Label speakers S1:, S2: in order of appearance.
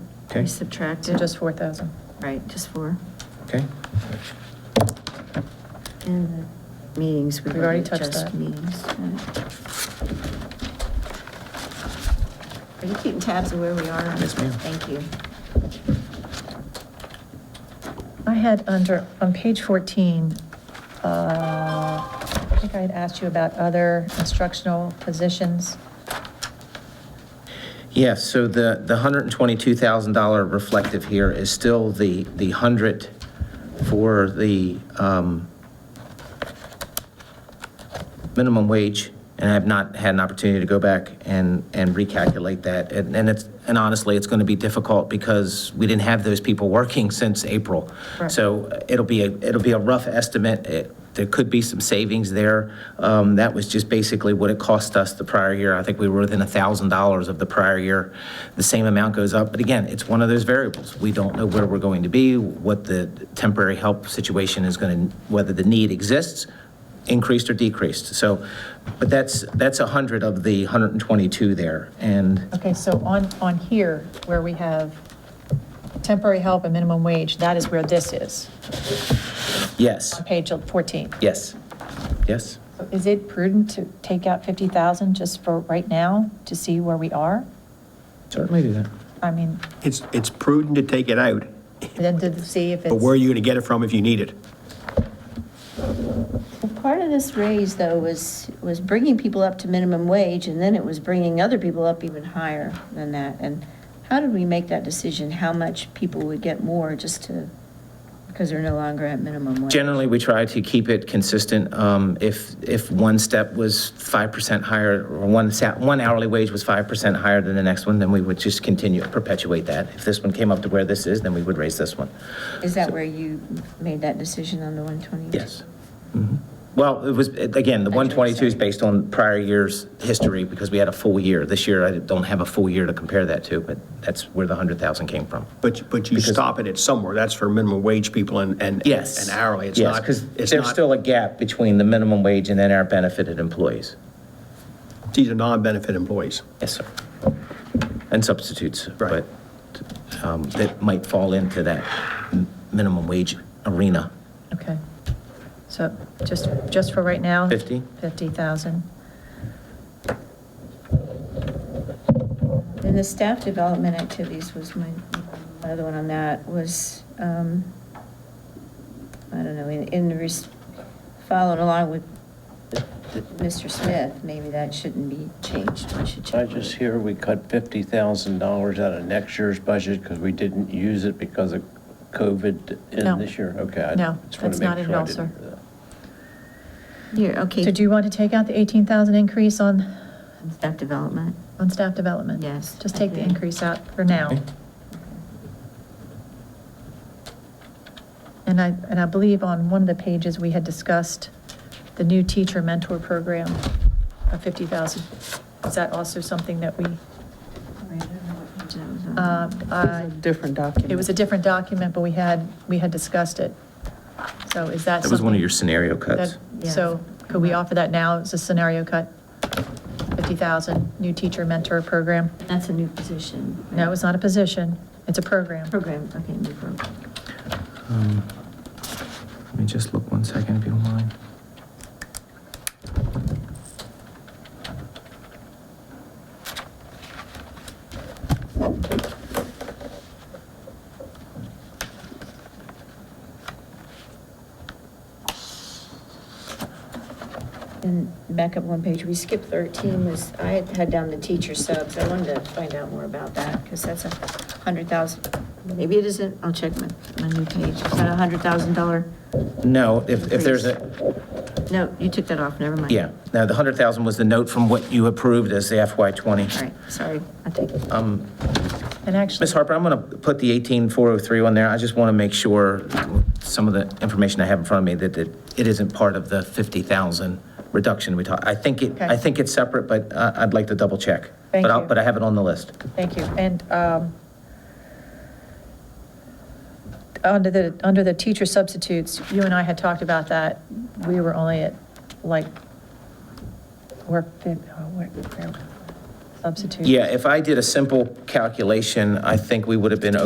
S1: Okay.
S2: We subtracted,
S3: So
S2: just,
S3: just 4,000.
S2: right, just four.
S1: Okay,
S2: And the meetings, we
S3: We've already
S2: already
S3: touched
S2: just
S3: that.
S2: meetings. right. Are you keeping tabs of where we are?
S1: Yes, ma'am.
S2: Thank you.
S3: I had under, on page 14, uh, I think I had asked you about other instructional positions.
S1: yeah, so the, the $122,000 reflective here is still the, the 100 for the um, minimum wage, and I have not had an opportunity to go back and, and recalculate that. And and it's, and honestly, it's going to be difficult because we didn't have those people working since April.
S3: Right.
S1: So uh, it'll be, a it'll be a rough estimate. It- There could be some savings there. Um, That was just basically what it cost us the prior year. I think we were within $1,000 of the prior year. The same amount goes up, but again, it's one of those variables. We don't know where we're going to be, what the temporary help situation is going to, whether the need exists, increased or decreased. So, but that's, that's 100 of the 122 there. And
S3: Okay, so on, on here, where we have temporary help and minimum wage, that is where this is,
S1: yes,
S3: on page 14.
S1: yes, yes.
S3: So Is it prudent to take out 50,000 just for right now to see where we are?
S1: Certainly do that.
S3: I mean,
S4: It's, it's prudent to take it out,
S3: then to see if it's.
S4: but where are you going to get it from if you need it?
S5: Well, Part of this raise, though, was, was bringing people up to minimum wage, and then it was bringing other people up even higher than that. And how did we make that decision, how much people would get more just to, because they're no longer at minimum wage?
S1: Generally, we try to keep it consistent. Um, If, if one step was 5% higher, or one sa- one hourly wage was 5% higher than the next one, then we would just continue, perpetuate that. If this one came up to where this is, then we would raise this one.
S5: Is that where you made that decision on the 120?
S1: Yes. Mhm. Well, it was, it- again, the 122 is based on prior year's history because we had a full year. This year, I don't have a full year to compare that to, but that's where the 100,000 came from.
S4: But, but you stop it at somewhere, that's for minimum wage people and, and
S1: Yes.
S4: and hourly, it's
S1: Yes,
S4: not,
S1: because
S4: it's
S1: there's
S4: not-
S1: still a gap between the minimum wage and then our benefited employees.
S4: These are non-benefit employees.
S1: Yes, sir. And substitutes,
S4: Right.
S1: but um, that might fall into that m- minimum wage arena.
S3: Okay. So just, just for right now?
S1: 50?
S3: 50,000.
S5: And the staff development activities was my, my other one on that was, um, I don't know, in, in, the res- following along with Mr. Smith, maybe that shouldn't be changed, we should
S6: I
S5: change.
S6: just hear we cut fifty thousand dollars out of next year's budget because we didn't use it because of COVID
S3: No.
S6: in this year. Okay. I
S3: No,
S6: just wanna
S3: that's
S6: make
S3: not in
S6: sure I
S3: all, sir.
S6: didn't, uh,
S2: Here, okay.
S3: Did you want to take out the 18,000 increase on,
S2: Staff development.
S3: on staff development?
S2: Yes,
S3: Just
S2: I
S3: take the
S2: agree.
S3: increase out for now.
S1: Okay.
S3: And I, and I believe on one of the pages, we had discussed the new teacher mentor program of 50,000. Is that also something that we, uh, uh,
S7: different document.
S3: it was a different document, but we had, we had discussed it. So is that something?
S1: That was one of your scenario cuts.
S3: That-
S2: Yeah.
S3: So could we offer that now as a scenario cut? 50,000, new teacher mentor program?
S2: uh, That's a new position. right?
S3: No, it's not a position, it's a program.
S2: Program, okay, new program.
S1: Um, Let me just look one second, if you don't mind.
S5: And back up one page, we skipped 13, was, I had had down the teacher subs, I wanted to find out more about that, because that's a 100,000,
S2: Maybe it isn't, I'll check my, my new page. Is that a hundred thousand dollar?
S1: No, if, if there's a,
S2: No, you took that off, never mind.
S1: yeah, no, the 100,000 was the note from what you approved as the
S2: All
S1: FY20.
S2: right, sorry, I take it.
S3: And actually,
S1: Ms. Harper, I'm going to put the 18403 on there. I just want to make sure some of the information I have in front of me that it, it isn't part of the 50,000 reduction we talked. I think it, I
S3: Okay.
S1: think it's separate, but I- I'd like to double check.
S3: Thank
S1: But I'll,
S3: you.
S1: but I have it on the list.
S3: thank you. And um, under the, under the teacher substitutes, you and I had talked about that. We were only at like, we're, fif- oh, where- where- substitute.
S1: Yeah, if I did a simple calculation, I think we would have been